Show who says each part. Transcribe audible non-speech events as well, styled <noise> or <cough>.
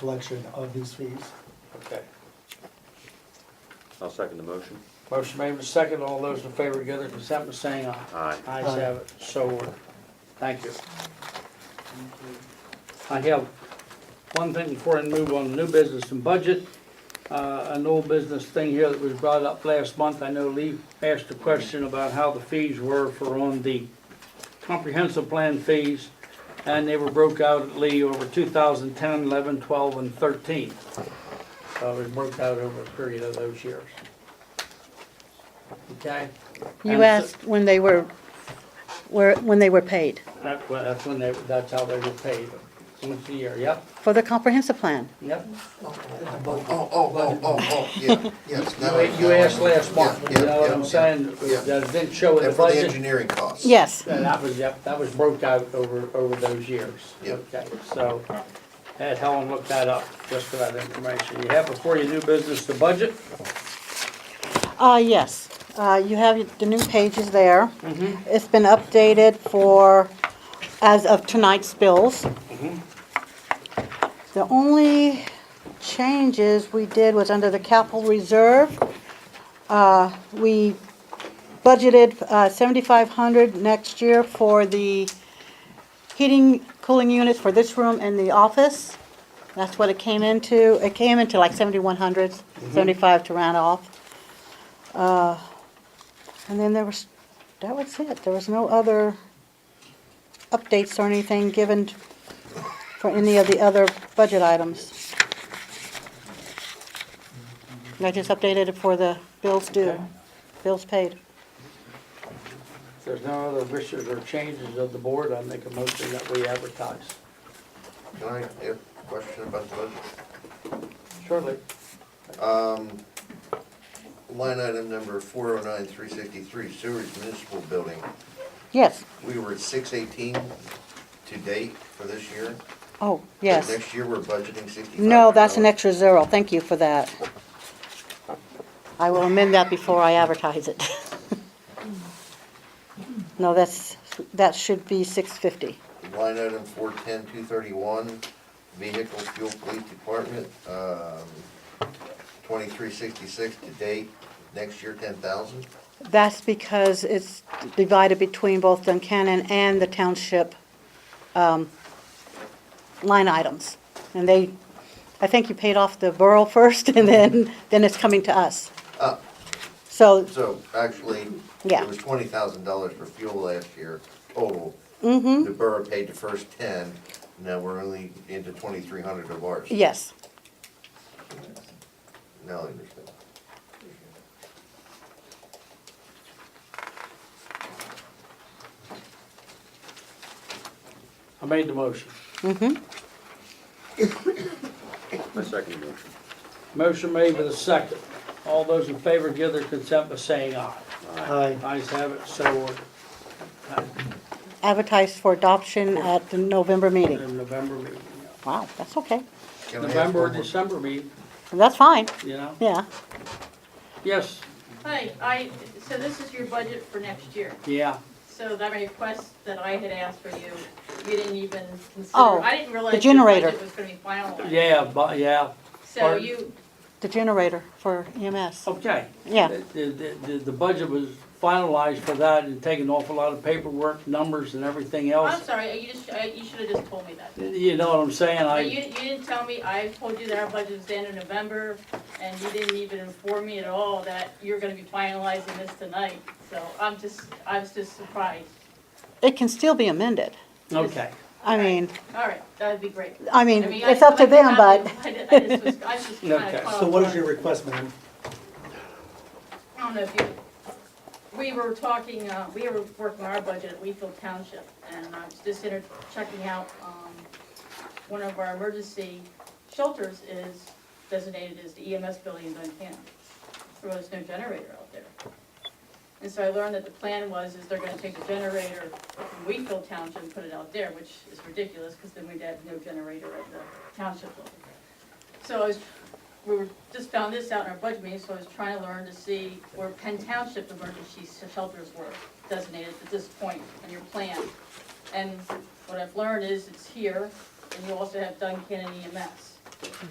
Speaker 1: collection of these fees.
Speaker 2: Okay.
Speaker 3: I'll second the motion.
Speaker 2: Motion made and second. All those in favor, give their consent by saying aye.
Speaker 3: Aye.
Speaker 2: Ayes have it. So ordered. Thank you. I have one thing before I move on to new business and budget. Uh, an old business thing here that was brought up last month. I know Lee asked a question about how the fees were for on the comprehensive plan fees. And they were broke out at Lee over 2010, 11, 12, and 13. So it was broke out over a period of those years. Okay?
Speaker 4: You
Speaker 2: And so-
Speaker 4: asked when they were, were, when they were paid
Speaker 2: That, well, that's when they, that's how they were paid, once a year, yep,
Speaker 4: for the comprehensive plan.
Speaker 2: yep.
Speaker 5: Oh, oh, oh, oh, oh, yeah, yes.
Speaker 2: You
Speaker 5: now I-
Speaker 2: you asked last month,
Speaker 5: Yeah,
Speaker 2: you
Speaker 5: yeah,
Speaker 2: know what
Speaker 5: yeah.
Speaker 2: I'm saying,
Speaker 5: yeah.
Speaker 2: that it didn't show in the
Speaker 5: And for the
Speaker 2: budget.
Speaker 5: engineering costs.
Speaker 4: Yes,
Speaker 2: And that was, yep, that was broke out over, over those years.
Speaker 5: Yep.
Speaker 2: Okay, so, had Helen look that up, just for that information. You have before you do business the budget?
Speaker 4: uh, yes. Uh, you have the new pages there. It's been updated for, as of tonight's bills. The only changes we did was under the capital reserve. Uh, we budgeted, uh, seventy-five hundred next year for the heating, cooling units for this room and the office. That's what it came into. It came into like seventy-one hundred, seventy-five to round off. Uh, And then there was, that was it. There was no other updates or anything given for any of the other budget items. And I just updated it for the bills due, bills paid.
Speaker 2: If there's no other wishes or changes of the board, I make a motion that we advertise.
Speaker 5: Can I, have a question about the budget?
Speaker 2: Surely.
Speaker 5: Um, line item number four oh nine, three sixty-three, sewers municipal building.
Speaker 4: Yes,
Speaker 5: We were at six eighteen to date for this year.
Speaker 4: oh, yes.
Speaker 5: Next year, we're budgeting sixty-five.
Speaker 4: No, that's an extra zero. Thank you for that. I will amend that before I advertise it. <laughs> No, that's, that should be 650.
Speaker 5: Line item four ten, two thirty-one, vehicle fuel police department, um, twenty-three sixty-six to date. Next year, ten thousand.
Speaker 4: That's because it's divided between both Duncannon and the township um, line items. And they, I think you paid off the borough <laughs> first, and then, then it's coming to us.
Speaker 5: Ah.
Speaker 4: So,
Speaker 5: So actually,
Speaker 4: Yeah.
Speaker 5: it was twenty thousand dollars for fuel last year total.
Speaker 4: mhm,
Speaker 5: The borough paid the first ten, now we're only into twenty-three hundred of ours.
Speaker 4: yes.
Speaker 5: Now I understand.
Speaker 2: I made the motion.
Speaker 4: mhm.
Speaker 3: I second the motion.
Speaker 2: Motion made with a second. All those in favor give their consent by saying aye.
Speaker 1: Aye.
Speaker 2: Ayes have it, so uh, ordered.
Speaker 4: Advertised for adoption at the November meeting.
Speaker 2: In November meeting,
Speaker 4: Wow, that's okay.
Speaker 5: Can I ask
Speaker 2: November or
Speaker 5: one more-
Speaker 2: December meeting,
Speaker 4: That's fine,
Speaker 2: you know?
Speaker 4: yeah.
Speaker 2: Yes,
Speaker 6: Hi, I, so this is your budget for next year.
Speaker 2: yeah,
Speaker 6: So that request that I had asked for you, you didn't even
Speaker 4: Oh,
Speaker 6: consider, I didn't realize.
Speaker 4: the
Speaker 6: your
Speaker 4: generator.
Speaker 6: budget Was gonna be finalized.
Speaker 2: yeah, but, yeah,
Speaker 6: So
Speaker 2: pardon?
Speaker 6: you,
Speaker 4: The generator for EMS,
Speaker 2: okay.
Speaker 4: yeah.
Speaker 2: The, the- the, the budget was finalized for that and taken off a lot of paperwork, numbers and everything
Speaker 6: I'm
Speaker 2: else.
Speaker 6: sorry, you just, I- you should've just told me that.
Speaker 2: You know what I'm saying?
Speaker 6: But
Speaker 2: I,
Speaker 6: You, you didn't tell me, I told you that our budget was the end of November, and you didn't even inform me at all that you're gonna be finalizing this tonight. So I'm just, I was just surprised.
Speaker 4: It can still be amended.
Speaker 2: okay.
Speaker 4: I mean,
Speaker 6: All right, that'd be great.
Speaker 4: I mean,
Speaker 6: I mean,
Speaker 4: it's
Speaker 6: I-
Speaker 4: up to
Speaker 6: I-
Speaker 4: them, but
Speaker 6: I did- I just was, I was
Speaker 2: <laughs>
Speaker 6: just kinda
Speaker 2: Okay.
Speaker 6: caught
Speaker 1: So what
Speaker 6: off
Speaker 1: is your request, ma'am?
Speaker 6: I don't know if you, we were talking, uh, we were working our budget at Weefield Township, and I was just inter, checking out, um, one of our emergency shelters is designated as the EMS building in Duncan. There was no generator out there. And so I learned that the plan was, is they're gonna take the generator from Weefield Township and put it out there, which is ridiculous, because then we'd have no generator at the township level. So I was we were, just found this out in our budget meeting, so I was trying to learn to see where Penn Township emergency shelters were designated at this point in your plan. And E what I've learned is it's here, and you also have Duncan and EMS.